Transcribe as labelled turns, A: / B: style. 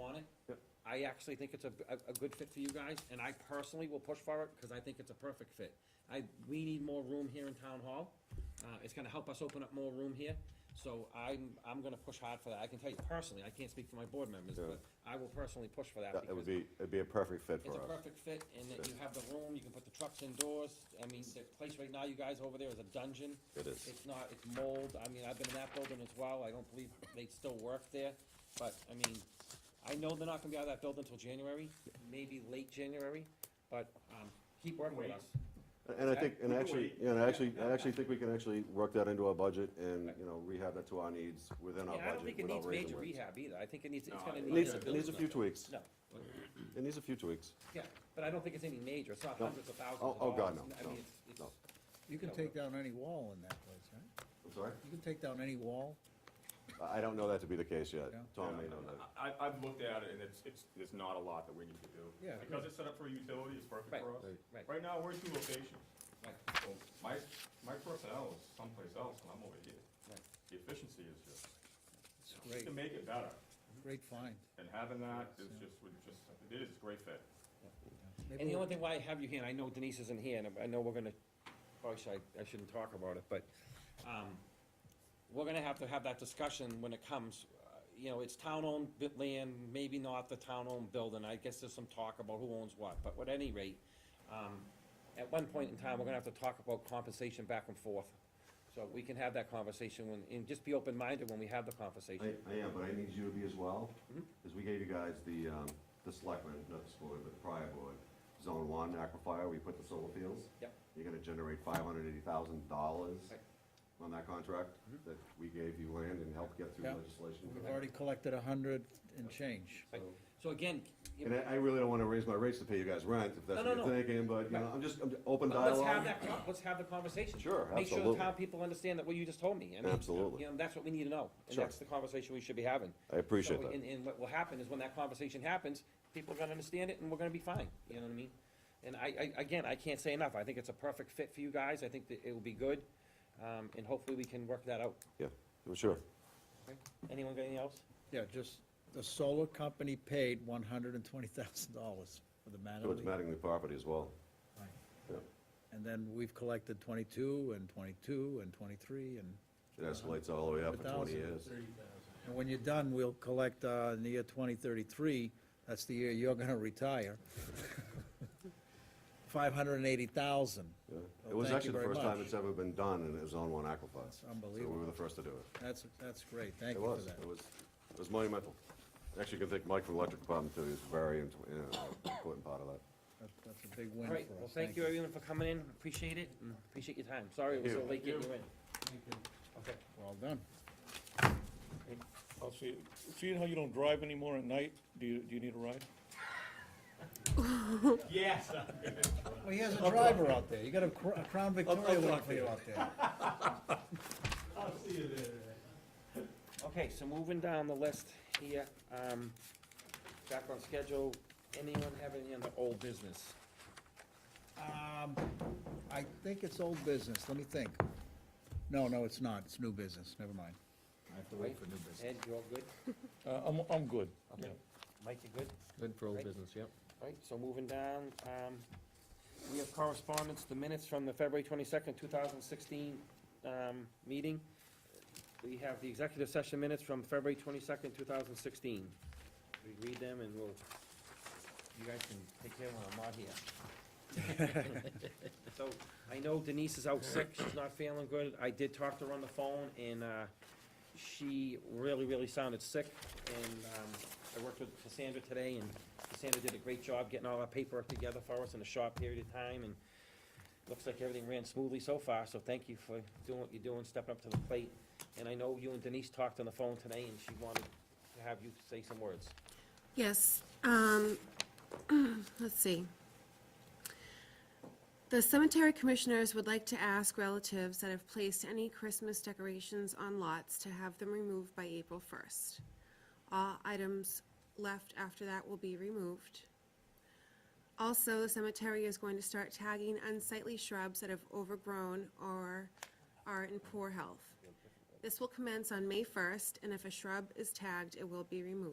A: on it.
B: Yep.
A: I actually think it's a, a, a good fit for you guys, and I personally will push for it, because I think it's a perfect fit. I, we need more room here in town hall, uh, it's gonna help us open up more room here, so I'm, I'm gonna push hard for that, I can tell you personally, I can't speak for my board members,
B: Yeah.
A: but I will personally push for that.
B: That- It
A: because
B: would be, it'd be a perfect fit
A: It's
B: for
A: a
B: us.
A: perfect fit, and that you have the room, you can put the trucks indoors, I mean, the place right now, you guys over there is a dungeon.
B: It is.
A: It's not, it's mold, I mean, I've been in that building as well, I don't believe they still work there, but, I mean, I know they're not gonna be out of that building until January, maybe late January, but, um, keep working with us.
B: And I think, and
A: We can
B: actually,
A: wait.
B: yeah, and I actually,
A: Yeah,
B: I
A: yeah.
B: actually think we can actually work that into our budget and, you know, rehab that to our needs within our
A: Yeah, I don't think
B: budget
A: it
B: without
A: needs
B: raising
A: major
B: rates.
A: rehab either, I think it needs, it's
C: No,
A: gonna
C: it
B: It
A: need.
B: needs,
A: a
B: it needs a few tweaks.
A: No, but,
B: It needs a few tweaks.
A: yeah, but I don't think it's any major, it's not
B: No.
A: hundreds of thousands
B: Oh-
A: of
B: oh,
A: dollars.
B: God, no,
A: I
B: no,
A: mean, it's- it's-
B: no.
D: You can take down any wall in that place, right?
B: I'm sorry?
D: You can take down any wall.
B: I don't know that to be the case yet.
D: Yeah.
B: Tom may know that.
C: I, I- I've looked at it, and it's, it's, there's not a lot that we need to do.
D: Yeah.
C: Because it's set up for utility, it's perfect
A: Right,
C: for us.
A: right.
C: Right now, we're in two locations.
A: Right.
C: So my, my personnel is someplace else, and I'm over here.
A: Right.
C: The efficiency is just,
D: It's
C: just
D: great,
C: to make it better,
D: great find.
C: and having that is just, would just, it is a great fit.
A: And the only thing why I have you here, and I know Denise isn't here, and I know we're gonna, probably should, I- I shouldn't talk about it, but, um, we're gonna have to have that discussion when it comes, uh, you know, it's town-owned bit land, maybe not the town-owned building, I guess there's some talk about who owns what, but at any rate, um, at one point in time, we're gonna have to talk about compensation back and forth, so we can have that conversation when, and just be open-minded when we have the
B: I,
A: conversation.
B: I am, but I need you to be as well,
A: Mm-hmm.
B: because we gave you guys the, um, the selectmen, not the school, board, but the prior board, zone one aquifer, we put the solar fields.
A: Yep.
B: You're gonna generate five hundred eighty thousand dollars
A: Right. Mm-hmm.
B: on that contract that we gave you land and helped get through
D: Yeah.
B: legislation.
D: We've already collected a hundred and change.
A: Right. So again, you
B: And
A: know,
B: I, I really don't wanna raise my rates to pay you guys rent, if that's
A: No,
B: what
A: no,
B: you're
A: no.
B: thinking, but, you know, I'm just, I'm just open
A: But let's
B: dialogue.
A: have that, con- let's have the conversation.
B: Sure,
A: Make sure
B: absolutely.
A: the town people understand that what you just told me. I mean,
B: Absolutely.
A: You know, that's what we need to know, and
B: Sure.
A: that's the conversation we should be having.
B: I appreciate
A: So,
B: that.
A: And, and what will happen is when that conversation happens, people are gonna understand it, and we're gonna be fine, you know what I mean? And I, I, again, I can't say enough, I think it's a perfect fit for you guys, I think that it will be good, um, and hopefully we can work that out.
B: Yeah, well, sure.
A: Okay? Anyone got anything else?
D: Yeah, just, the solar company paid one hundred and twenty thousand dollars for the
B: So it's
D: Mattingly.
B: Mattingly property as well.
D: Right.
B: Yeah.
D: And then we've collected twenty-two and twenty-two and twenty-three and,
B: It escalates all the way up for twenty
D: 100,000.
B: years.
D: and when you're done, we'll collect, uh, in the year twenty thirty-three, that's the year you're gonna retire. Five hundred and eighty thousand.
B: Yeah. It
D: Well,
B: was
D: thank
B: actually
D: you
B: the
D: very
B: first time
D: much.
B: it's ever been done, and it was on one aquifer.
D: That's
B: So we
D: unbelievable.
B: were the first to do it.
D: That's, that's great, thank
B: It
D: you for
B: was,
D: that.
B: it was, it was monumental. Actually, you can thank Mike from Electric Department, too, he was very int- uh, important part of that.
D: That- That's a big win
A: All
D: for
A: right,
D: us.
A: well, thank you everyone for coming in, appreciate it, and appreciate your time, sorry it was so
B: Thank
A: late getting you in. Okay.
D: Well done.
E: I'll see, seeing how you don't drive anymore at night, do you, do you need a ride?
C: Yes.
D: Well, he has a driver out there. You got a Cro- a Crown Victoria waiting for you out there.
C: I'll see you there.
A: Okay, so moving down the list here, um, back on schedule, anyone have any on the old business?
D: Um, I think it's old business. Let me think. No, no, it's not. It's new business. Never mind. I have to wait for new business.
A: Ed, you all good?
E: Uh, I'm, I'm good.
A: Okay. Mike, you good?
F: Good for old
A: Right.
F: business, yep.
A: Right, so moving down, um, we have correspondence, the minutes from the February twenty-second, two thousand sixteen, um, meeting. We have the executive session minutes from February twenty-second, two thousand sixteen. We read them and we'll, you guys can take care when I'm not here. So, I know Denise is out sick, she's not feeling good, I did talk to her on the phone and, uh, she really, really sounded sick and, um, I worked with Cassandra today and Cassandra did a great job getting all our paperwork together for us in a short period of time, and looks like everything ran smoothly so far, so thank you for doing what you're doing, stepping up to the plate. And I know you and Denise talked on the phone today, and she wanted to have you say some words.
G: Yes, um, let's see. The cemetery commissioners would like to ask relatives that have placed any Christmas decorations on lots to have them removed by April first. All items left after that will be removed. Also, the cemetery is going to start tagging unsightly shrubs that have overgrown or are in poor health. This will commence on May first, and if a shrub is tagged, it will be removed.